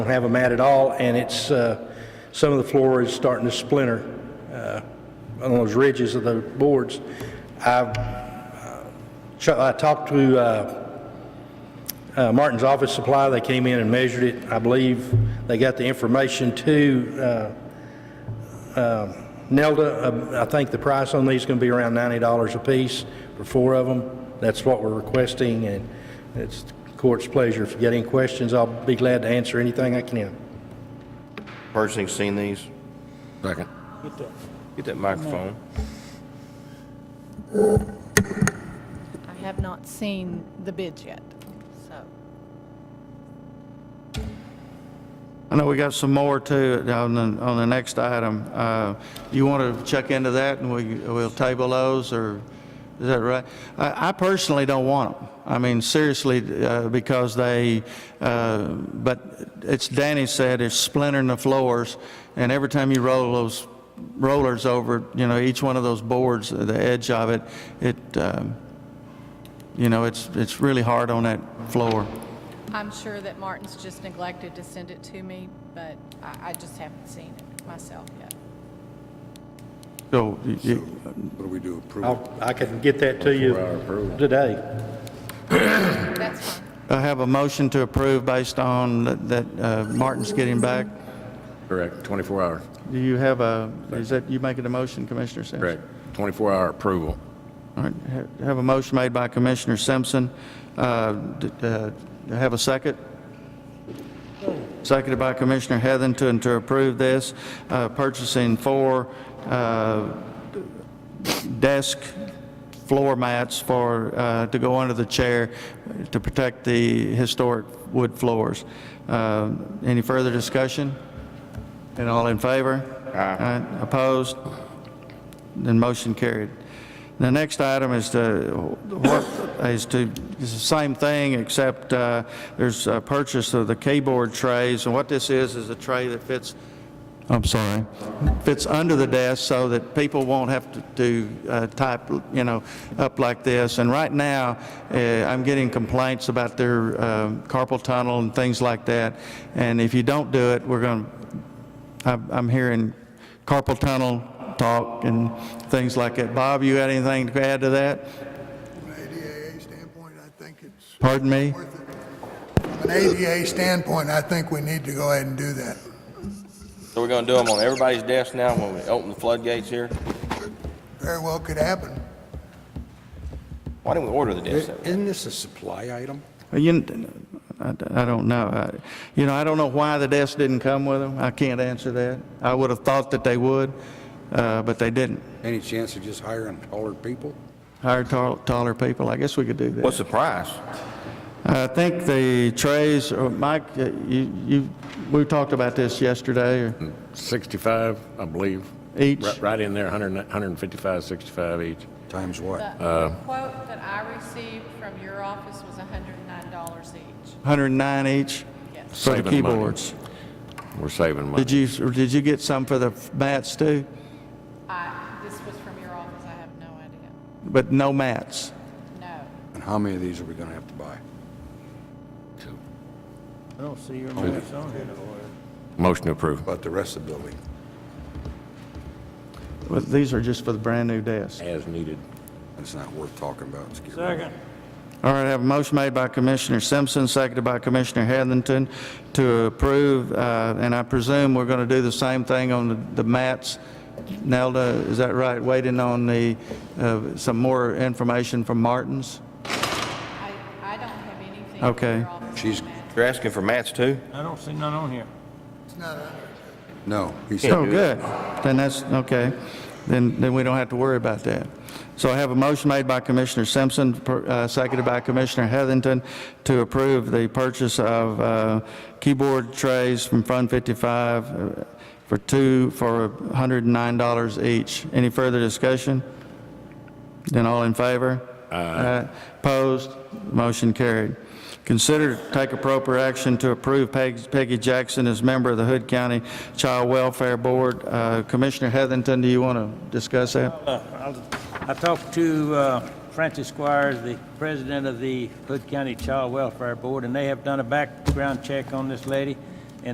don't have them at at all, and it's, uh, some of the floor is starting to splinter uh, on those ridges of the boards. I've, uh, ch- I talked to uh, uh, Martin's Office Supply, they came in and measured it. I believe they got the information to uh, Nelda, uh, I think the price on these is going to be around $90 apiece for four of them. That's what we're requesting, and it's the court's pleasure. If you got any questions, I'll be glad to answer anything I can. Personally seen these? Second. Get that microphone. I have not seen the bids yet, so. I know we got some more too on the, on the next item. Uh, You want to check into that and we, we'll table those or, is that right? I, I personally don't want them. I mean, seriously, uh, because they, uh, but it's Danny said, it's splintering the floors and every time you roll those rollers over, you know, each one of those boards, the edge of it, it, um, you know, it's, it's really hard on that floor. I'm sure that Martin's just neglected to send it to me, but I, I just haven't seen it myself yet. So you- you, What do we do, approve? I'll- I can get that to you Before I approve. today. That's fine. I have a motion to approve based on that- that uh, Martin's getting back. Correct, 24 hour, Do you have a, is that, you making a motion, Commissioner Simpson? correct, 24 hour approval. All right, ha- have a motion made by Commissioner Simpson. Uh, d- uh, do I Have a second? Seconded by Commissioner Heatherington to approve this, uh, purchasing four uh, desk floor mats for, uh, to go under the chair to protect the historic wood floors. Uh, Any further discussion? And all in favor? Aye. Opposed? Then motion carried. The next item is to, what, is to, is the same thing, except uh, there's a purchase of the keyboard trays, and what this is, is a tray that fits, I'm sorry, fits under the desk so that people won't have to do, uh, type, you know, up like this. And right now, uh, I'm getting complaints about their um, carpal tunnel and things like that, and if you don't do it, we're going to I'm I'm hearing carpal tunnel talk and things like that. Bob, you got anything to add to that? From an ADA standpoint, I think it's Pardon me? worth it. From an ADA standpoint, I think we need to go ahead and do that. So we're gonna do them on everybody's desk now when we open the floodgates here? Very well could happen. Why didn't we order the desk? that way? Isn't this a supply item? You, I I don't know. I- You know, I don't know why the desk didn't come with them. I can't answer that. I would have thought that they would, uh, but they didn't. Any chance of just hiring taller people? Hire tall- taller people. I guess we could do What's that. the price? I think the trays, or Mike, uh, you, you, we talked about this yesterday, or 65, I believe. each. Right- Right in there, 100 155, 65 each. Times what? The quote that I received from your office was $109 each. 109 each Yes. for the Saving money. keyboards. We're saving money. Did you, did you get some for the mats too? I, this was from your office, I have no idea. But no mats? No. And how many of these are we gonna have to buy? I don't see your on Motion to approve. About the rest of the building? Well, these are just for the brand-new desk. As needed. That's not worth talking about. Let's get rid of it. Second. All right, I have a motion made by Commissioner Simpson, seconded by Commissioner Heatherington to approve, uh, and I presume we're going to do the same thing on the- the mats. Nelda, is that right? Waiting on the, uh, some more information from Martins? I, I don't have anything Okay. from your office. on She's- that. You're asking for mats too? I don't see none on here. It's not a No, he said. Oh, good. Then that's, okay. Then, then we don't have to worry about that. So I have a motion made by Commissioner Simpson, per- uh, seconded by Commissioner Heatherington to approve the purchase of uh, keyboard trays from Fund 55 uh, for two, for $109 each. Any further discussion? Then all in favor? Aye. Opposed? Motion carried. Consider to take appropriate action to approve Peg- Peggy Jackson as member of the Hood County Child Welfare Board. Uh, Commissioner Heatherington, do you want to discuss that? Uh, I'll- I talked to uh, Francis Squires, the president of the Hood County Child Welfare Board, and they have done a background check on this lady.